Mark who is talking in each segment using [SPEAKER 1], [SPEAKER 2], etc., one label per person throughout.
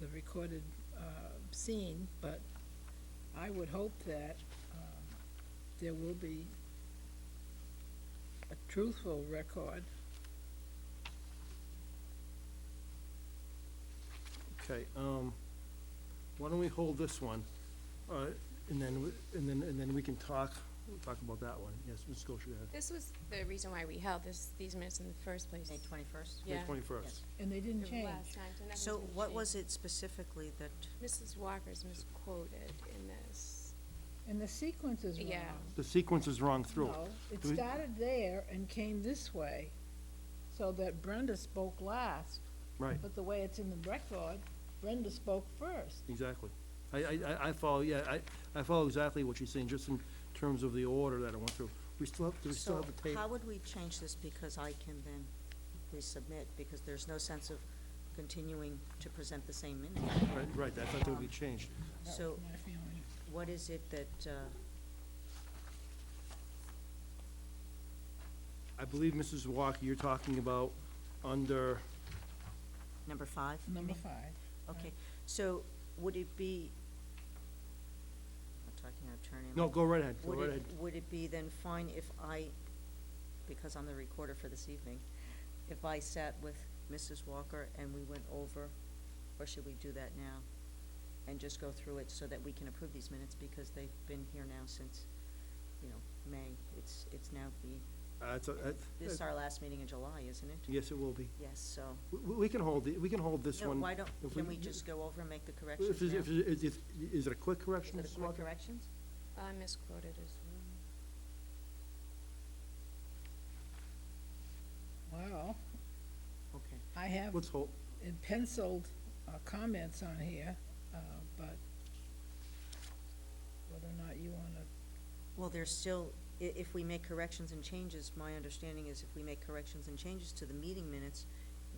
[SPEAKER 1] the recorded uh, scene, but I would hope that um, there will be a truthful record.
[SPEAKER 2] Okay, um, why don't we hold this one, uh, and then, we- and then, and then we can talk, we'll talk about that one. Yes, Ms. Goshen, go ahead.
[SPEAKER 3] This was the reason why we held this, these minutes in the first place.
[SPEAKER 4] May twenty-first?
[SPEAKER 3] Yeah.
[SPEAKER 2] May twenty-first.
[SPEAKER 4] Yes.
[SPEAKER 1] And they didn't
[SPEAKER 3] They
[SPEAKER 1] change.
[SPEAKER 3] were last time, so nothing's
[SPEAKER 4] So
[SPEAKER 3] been
[SPEAKER 4] what was
[SPEAKER 3] changed.
[SPEAKER 4] it specifically that,
[SPEAKER 3] Mrs. Walker's misquoted in this.
[SPEAKER 1] And the sequence is wrong.
[SPEAKER 3] Yeah.
[SPEAKER 2] The sequence is wrong through.
[SPEAKER 1] No, it
[SPEAKER 2] Do we-
[SPEAKER 1] started there and came this way, so that Brenda spoke last,
[SPEAKER 2] Right,
[SPEAKER 1] but the way it's in the record, Brenda spoke first.
[SPEAKER 2] exactly. I, I, I- I follow, yeah, I, I follow exactly what she's saying, just in terms of the order that I went through. We still have, do we still
[SPEAKER 4] so
[SPEAKER 2] have the tape?
[SPEAKER 4] how would we change this because I can then resubmit? Because there's no sense of continuing to present the same minute.
[SPEAKER 2] Right, right, that's not
[SPEAKER 4] Um,
[SPEAKER 2] gonna be changed.
[SPEAKER 1] That
[SPEAKER 4] So
[SPEAKER 1] was my feeling.
[SPEAKER 4] what is it that, uh,
[SPEAKER 2] I believe, Mrs. Walker, you're talking about under,
[SPEAKER 4] number five? you
[SPEAKER 1] Number
[SPEAKER 4] mean?
[SPEAKER 1] five.
[SPEAKER 4] Okay, so would it be, I'm talking out of turn. am
[SPEAKER 2] no,
[SPEAKER 4] I?
[SPEAKER 2] go right ahead, go
[SPEAKER 4] Would
[SPEAKER 2] right
[SPEAKER 4] it,
[SPEAKER 2] ahead.
[SPEAKER 4] would it be then fine if I, because I'm the recorder for this evening, if I sat with Mrs. Walker and we went over, or should we do that now? And just go through it so that we can approve these minutes, because they've been here now since, you know, May. It's, it's now the,
[SPEAKER 2] Uh, it's a- that-
[SPEAKER 4] this is
[SPEAKER 2] that-
[SPEAKER 4] our last meeting in July, isn't it?
[SPEAKER 2] Yes, it will be.
[SPEAKER 4] Yes, so,
[SPEAKER 2] We, we- we can hold, the- we can hold this
[SPEAKER 4] no,
[SPEAKER 2] one.
[SPEAKER 4] why don't,
[SPEAKER 2] if
[SPEAKER 4] can we just go over and make the
[SPEAKER 2] Well,
[SPEAKER 4] corrections
[SPEAKER 2] If,
[SPEAKER 4] now?
[SPEAKER 2] it's- if,
[SPEAKER 4] Is
[SPEAKER 2] it's- it's- is it a quick correction,
[SPEAKER 4] it a
[SPEAKER 2] Mrs.
[SPEAKER 4] quick
[SPEAKER 2] Walker?
[SPEAKER 4] corrections?
[SPEAKER 3] I uh, misquoted as well.
[SPEAKER 1] Wow,
[SPEAKER 4] Okay.
[SPEAKER 1] I have
[SPEAKER 2] Let's hold,
[SPEAKER 1] in penciled uh, comments on here, uh, but whether or not you want to,
[SPEAKER 4] Well, there's still, i- if we make corrections and changes, my understanding is if we make corrections and changes to the meeting minutes,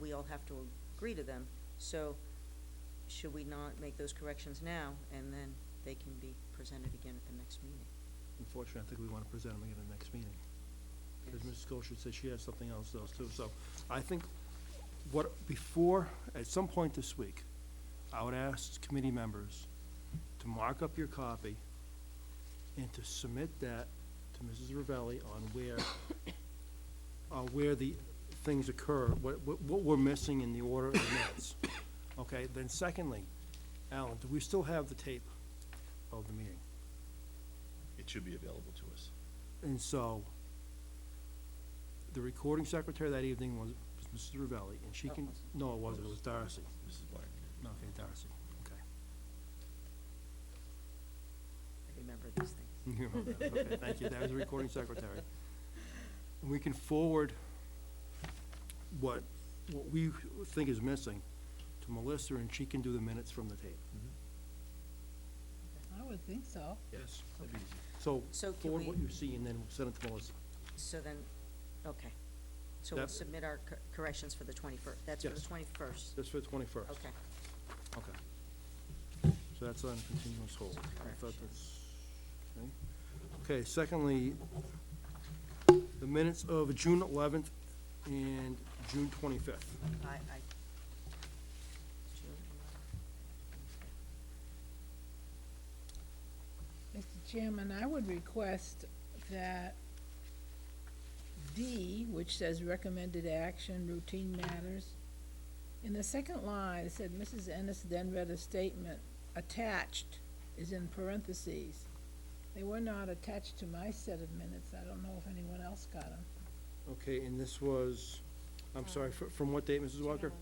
[SPEAKER 4] we all have to agree to them. So should we not make those corrections now and then they can be presented again at the next meeting?
[SPEAKER 2] unfortunately, I think we want to present them again at the next meeting. Because Mrs. Goshen said she has something else those too, so I think what, before, at some point this week, I would ask committee members to mark up your copy and to submit that to Mrs. Ravelli on where, uh, where the things occur, what, what, what we're missing in the order of minutes. Okay, then secondly, Alan, do we still have the tape of the meeting?
[SPEAKER 5] It should be available to us.
[SPEAKER 2] And so, the recording secretary that evening was was Mrs. Ravelli, and she
[SPEAKER 4] Oh,
[SPEAKER 2] can,
[SPEAKER 4] wasn't
[SPEAKER 2] no, it wasn't, it was Darcy.
[SPEAKER 5] Mrs. Black.
[SPEAKER 2] No, Okay, Darcy, okay.
[SPEAKER 4] I remember these things.
[SPEAKER 2] You remember that, okay, Thank you, that was the recording secretary. And we can forward what, what we think is missing to Melissa, and she can do the minutes from the tape.
[SPEAKER 1] I would think so.
[SPEAKER 2] Yes. So,
[SPEAKER 4] So can
[SPEAKER 2] forward
[SPEAKER 4] we-
[SPEAKER 2] what you see, and then we'll send it to Melissa.
[SPEAKER 4] So then, okay. So we'll
[SPEAKER 2] That-
[SPEAKER 4] submit our cor- corrections for the twenty-first, that's for the
[SPEAKER 2] Yes.
[SPEAKER 4] twenty-first.
[SPEAKER 2] That's for the twenty-first.
[SPEAKER 4] Okay,
[SPEAKER 2] Okay. So that's on continuous hold. I thought that's, okay. Okay, secondly, the minutes of June eleventh and June twenty-fifth.
[SPEAKER 4] I, I.
[SPEAKER 1] Mr. Chairman, I would request that D, which says recommended action, routine matters, in the second line, it said, Mrs. Ennis then read a statement, attached is in parentheses. They were not attached to my set of minutes. I don't know if anyone else got them.
[SPEAKER 2] Okay, and this was, I'm sorry, fr- from what date, Mrs. Walker?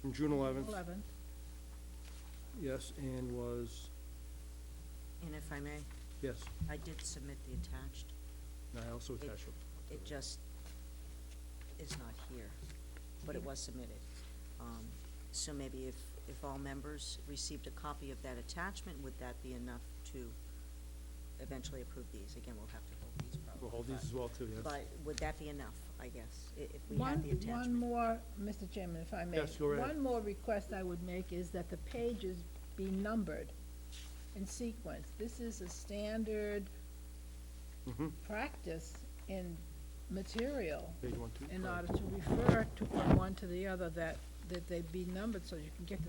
[SPEAKER 2] From June eleventh,
[SPEAKER 1] Eleven.
[SPEAKER 2] yes, and was,
[SPEAKER 4] And if I may,
[SPEAKER 2] yes,
[SPEAKER 4] I did submit the attached.
[SPEAKER 2] and I also attached it.
[SPEAKER 4] it just is not here, but it was submitted. Um, So maybe if, if all members received a copy of that attachment, would that be enough to eventually approve these? Again, we'll have to hold these probably.
[SPEAKER 2] We'll hold these as well too,
[SPEAKER 4] but-
[SPEAKER 2] yes.
[SPEAKER 4] But would that be enough, I guess, i- if we
[SPEAKER 1] One,
[SPEAKER 4] had the
[SPEAKER 1] one
[SPEAKER 4] attachment?
[SPEAKER 1] more, Mr. Chairman, if I may.
[SPEAKER 2] Yes, go ahead.
[SPEAKER 1] One more request I would make is that the pages be numbered in sequence. This is a standard
[SPEAKER 2] Mhm.
[SPEAKER 1] practice in material
[SPEAKER 2] Page one, two,
[SPEAKER 1] in
[SPEAKER 2] right.
[SPEAKER 1] order to refer to from one to the other, that, that they be numbered so you can get the